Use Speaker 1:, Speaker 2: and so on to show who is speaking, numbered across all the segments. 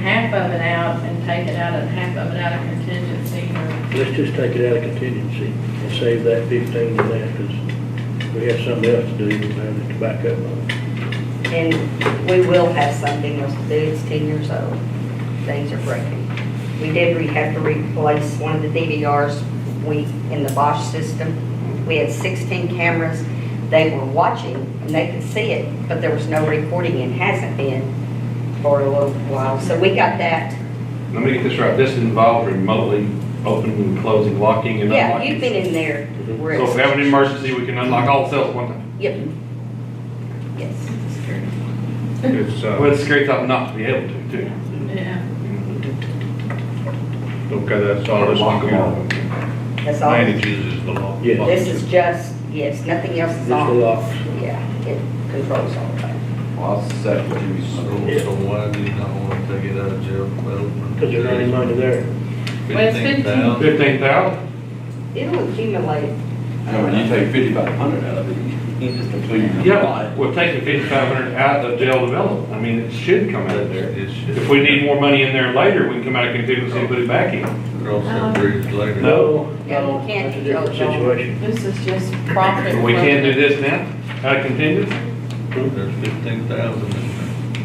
Speaker 1: half of it out and take it out of, half of it out of contingency or,
Speaker 2: Let's just take it out of contingency and save that fifteen to that, because we have something else to do than the tobacco money.
Speaker 3: And we will have something else to do, it's ten years old, things are breaking. We did, we have to replace one of the DVRs we, in the Bosch system. We had sixteen cameras, they were watching, and they could see it, but there was no recording, and hasn't been for a little while, so we got that.
Speaker 4: Let me get this right, this involved remotely opening and closing, locking and
Speaker 3: Yeah,
Speaker 4: unlocking.
Speaker 3: you've been in there, where
Speaker 4: So if we
Speaker 3: it's,
Speaker 4: have an emergency, we can unlock all the cells at one time.
Speaker 3: yep. Yes, it's true.
Speaker 5: It's, uh,
Speaker 4: Well, it's scary thought not to be able to, too.
Speaker 1: yeah.
Speaker 5: okay, that's all this
Speaker 4: Lock 'em
Speaker 5: one
Speaker 3: that's all.
Speaker 5: manages is the law.
Speaker 2: Yeah.
Speaker 3: This is just, yes, nothing else
Speaker 2: Just
Speaker 3: is
Speaker 2: the
Speaker 3: on.
Speaker 2: locks.
Speaker 3: Yeah, it controls all that.
Speaker 6: Well, I'll second you, so,
Speaker 2: Yeah.
Speaker 6: so why do you not want to take it out of jail?
Speaker 2: Because there's not any money there.
Speaker 1: Well, it's 15.
Speaker 6: $15,000.
Speaker 4: Fifteen thousand?
Speaker 3: It'll accumulate.
Speaker 4: Oh,
Speaker 6: No, when you take fifty-five hundred out of it, you just completely.
Speaker 4: Yeah, we're taking fifty-five hundred out of jail development. I mean, it should come out of there.
Speaker 6: It's just.
Speaker 4: If we need more money in there later, we can come out of contingency and put it back in.
Speaker 6: Cross
Speaker 1: Uh-huh.
Speaker 6: that bridge later.
Speaker 2: No,
Speaker 3: Yeah,
Speaker 2: no,
Speaker 3: you can't
Speaker 2: that's a different
Speaker 3: control it all.
Speaker 2: situation.
Speaker 1: This is just profit.
Speaker 4: But we can't do this now, out of contingency?
Speaker 6: There's fifteen thousand in there.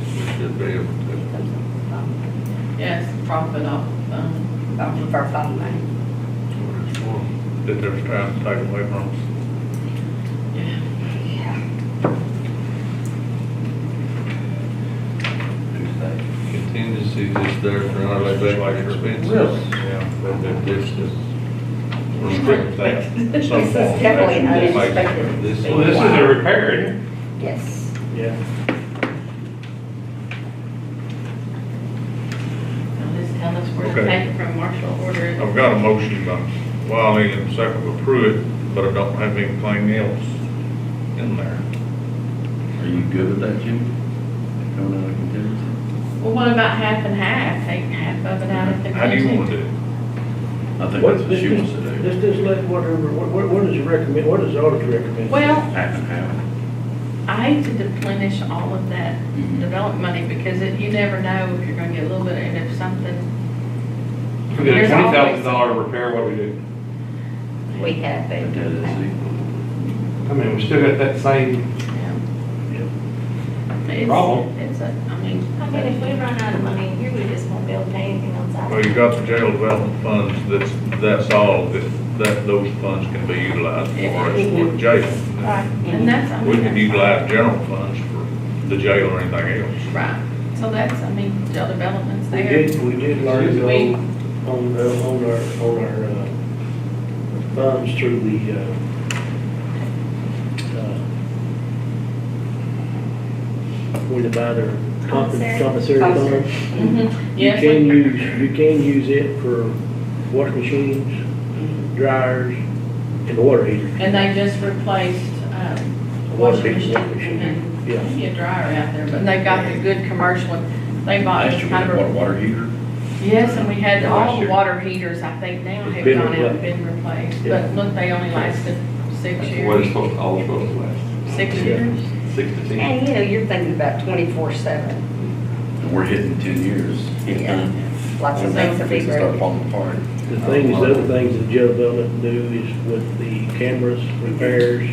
Speaker 6: We should be able to.
Speaker 3: Off
Speaker 1: Yes, profit off, um,
Speaker 3: of our phone line.
Speaker 6: that's what it's for.
Speaker 5: That there's time to take away from us.
Speaker 1: yeah.
Speaker 6: Contingency is there for our labor expenses.
Speaker 5: Yeah.
Speaker 6: But this is.
Speaker 5: Restrict that in
Speaker 3: This
Speaker 5: some
Speaker 3: is
Speaker 5: form.
Speaker 3: definitely
Speaker 5: That's-
Speaker 3: unexpected.
Speaker 6: This
Speaker 4: Well, this is a repair, isn't it?
Speaker 3: Yes.
Speaker 2: Yeah,
Speaker 1: Now just tell us where to
Speaker 5: Okay.
Speaker 1: take it from marshal order.
Speaker 5: I've got a motion by Wiley and second by Pruitt, but I don't have anything else in there.
Speaker 6: Are you good with that, Jim? Coming out of contingency?
Speaker 1: Well, what about half and half? Take half of it out of the.
Speaker 5: How do you want to do it?
Speaker 6: I think
Speaker 2: What-
Speaker 6: that's what she wants to do.
Speaker 2: let's just let whatever, what, what what does it recommend, what does the auditor recommend?
Speaker 1: Well,
Speaker 6: Half and half.
Speaker 1: I hate to deplenish all of that development money because it, you never know if you're gonna get a little bit and if something.
Speaker 4: If we did a
Speaker 1: There's
Speaker 4: twenty
Speaker 1: always-
Speaker 4: thousand dollar repair, what do we do?
Speaker 3: We have
Speaker 6: That is
Speaker 3: it.
Speaker 6: equal.
Speaker 4: I mean, we still got that same,
Speaker 1: It's-
Speaker 4: Problem.
Speaker 1: It's a, I mean,
Speaker 7: I mean, if we run out of money, here we just won't be able to pay anything else out.
Speaker 5: Well, you got the jail development funds, that's, that's all, that, that, those funds can be utilized for us with jail.
Speaker 7: Right.
Speaker 1: and that's. I
Speaker 5: We
Speaker 1: mean,
Speaker 5: can
Speaker 1: that's-
Speaker 5: utilize general funds for the jail or anything else.
Speaker 1: Right, so that's, I mean, jail development's
Speaker 2: We
Speaker 1: there.
Speaker 2: did, we did learn
Speaker 1: We-
Speaker 2: on, on, uh, on our, on our, uh, funds through the, uh, uh, when to buy their
Speaker 7: Commissary.
Speaker 2: commissary
Speaker 3: Commissary.
Speaker 2: funds.
Speaker 1: Mm-hmm.
Speaker 2: You
Speaker 1: Yes,
Speaker 2: can
Speaker 1: we-
Speaker 2: use, you can use it for washing machines, dryers, and water heaters.
Speaker 1: Mm-hmm. and they just replaced, um, washing machine and,
Speaker 2: Yeah,
Speaker 1: yeah, dryer out there, but they got the good commercial, one. they bought
Speaker 6: Last
Speaker 1: this
Speaker 6: year we
Speaker 1: kind
Speaker 6: had
Speaker 1: of.
Speaker 6: a water heater.
Speaker 1: Yes, and we had
Speaker 6: Last
Speaker 1: all the
Speaker 6: year.
Speaker 1: water heaters, I think now have
Speaker 2: Been
Speaker 1: gone out and
Speaker 2: replaced.
Speaker 1: been replaced,
Speaker 2: Yeah.
Speaker 1: but look, they only lasted six
Speaker 4: that's what
Speaker 1: years,
Speaker 4: it's supposed, all it's supposed to last,
Speaker 1: six
Speaker 2: Yeah.
Speaker 1: years.
Speaker 4: six to ten.
Speaker 3: And, you know, you're thinking about twenty-four seven.
Speaker 6: And we're hitting ten years.
Speaker 3: Yeah. Lots of things are
Speaker 6: Things
Speaker 3: being
Speaker 6: start
Speaker 3: ready.
Speaker 6: falling apart.
Speaker 2: the things, the other things that Joe Belmont do is with the cameras, repairs,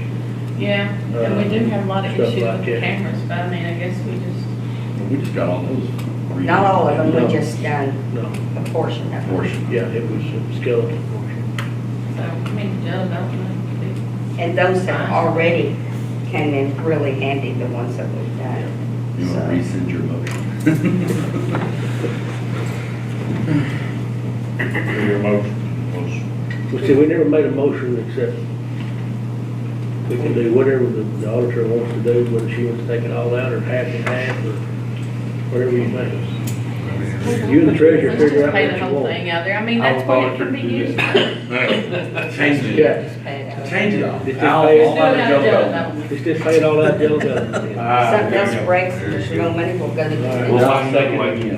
Speaker 1: Yeah, and we
Speaker 6: Uh,
Speaker 1: do have a lot of
Speaker 2: Stuff
Speaker 1: issues with
Speaker 2: like
Speaker 1: the
Speaker 2: that.
Speaker 1: cameras, but I mean, I guess we just,
Speaker 6: We just got all those.
Speaker 3: Not all of them, we just done
Speaker 2: no,
Speaker 3: a portion of them.
Speaker 6: Portion.
Speaker 2: yeah, it was a skeleton portion.
Speaker 1: so, I mean, jail development, we-
Speaker 3: And those that already came in really handy, the ones that we've done.
Speaker 6: You want to
Speaker 3: So-
Speaker 6: rescind your motion?
Speaker 5: Your motion was,
Speaker 2: Well, see, we never made a motion except we can do whatever the the auditor wants to do, whether she wants to take it all out or half and half or whatever you think. You and the treasurer
Speaker 1: let's just
Speaker 2: figure out
Speaker 1: pay the
Speaker 2: what you
Speaker 1: whole
Speaker 2: want.
Speaker 1: thing out there, I mean,
Speaker 4: I
Speaker 1: that's
Speaker 4: would
Speaker 1: what it can
Speaker 4: volunteer
Speaker 1: be
Speaker 4: to do
Speaker 1: used.
Speaker 6: Change
Speaker 2: Yeah,
Speaker 3: Just pay it out.
Speaker 6: Change it all.
Speaker 2: It's just pay it-
Speaker 6: All out of jail
Speaker 1: Jail
Speaker 6: though.
Speaker 1: development.
Speaker 2: it's just pay it all out, Joe Belmont.
Speaker 4: Ah,
Speaker 3: Something
Speaker 4: there you
Speaker 3: else
Speaker 4: go.
Speaker 3: breaks, there's no money, we'll go to
Speaker 2: All right.
Speaker 3: the.
Speaker 4: We'll
Speaker 6: Now,
Speaker 4: find another way.
Speaker 6: second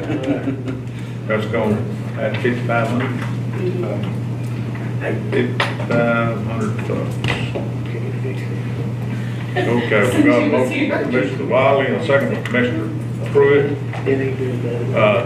Speaker 6: again.
Speaker 5: that's going at fifty-five hundred, fifty-five hundred uh, bucks. Okay, we got a motion by Commissioner Wiley and a second by Commissioner Pruitt
Speaker 2: It ain't doing that.
Speaker 5: Uh,